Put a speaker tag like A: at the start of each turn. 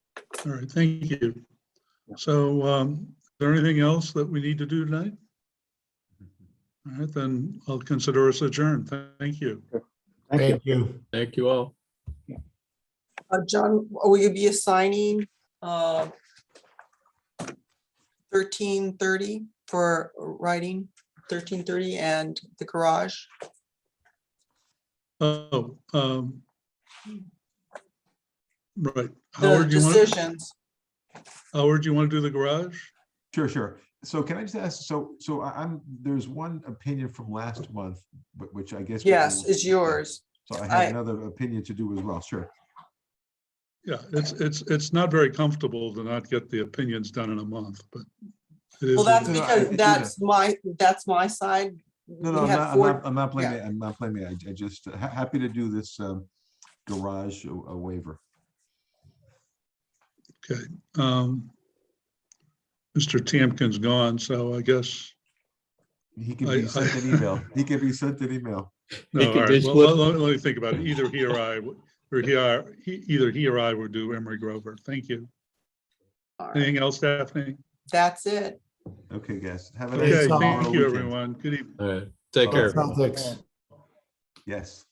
A: All right, thank you. So um, is there anything else that we need to do tonight? All right, then I'll consider us adjourned. Thank you.
B: Thank you.
C: Thank you.
D: Thank you all.
E: Uh, John, will you be assigning, uh, thirteen thirty for writing, thirteen thirty and the garage?
A: Oh, um, right.
E: The
A: Howard, you want,
E: decisions,
A: Howard, you want to do the garage?
F: Sure, sure. So can I just ask, so, so I- I'm, there's one opinion from last month, but which I guess. we
E: yes,
F: will-
E: is yours.
F: So I
E: I-
F: have another opinion to do as well, sure.
A: Yeah, it's, it's, it's not very comfortable to not get the opinions done in a month, but. it is
E: Well,
A: what
E: that's
A: it is.
F: No, no, I-
E: because,
F: yeah.
E: that's my, that's my side.
F: No, no,
E: We
F: I'm
E: had
F: not, I'm
E: four-
F: not, I'm not blaming,
E: yeah.
F: it, I'm not blaming, it. I I just, ha- happy to do this um, garage a- a waiver.
A: Um, Mr. Tamkin's gone, so I guess.
F: He can
A: I-
F: be sent an email. He can be sent an email.
A: No,
D: He
A: all
D: could
A: right,
D: just
A: well,
D: look-
A: let- let, let me think about it. Either he or I, would- or he, or- he- either he or I would do Emery Grover. Thank you.
E: All right,
A: Anything else, Daphne?
E: That's it.
F: Okay, guys. Have a nice
A: Okay,
C: all.
F: tomorrow
A: thank you,
F: weekend.
A: everyone. Good evening.
D: All right. Take
F: Oh,
D: care.
C: Celtics.
F: Yes.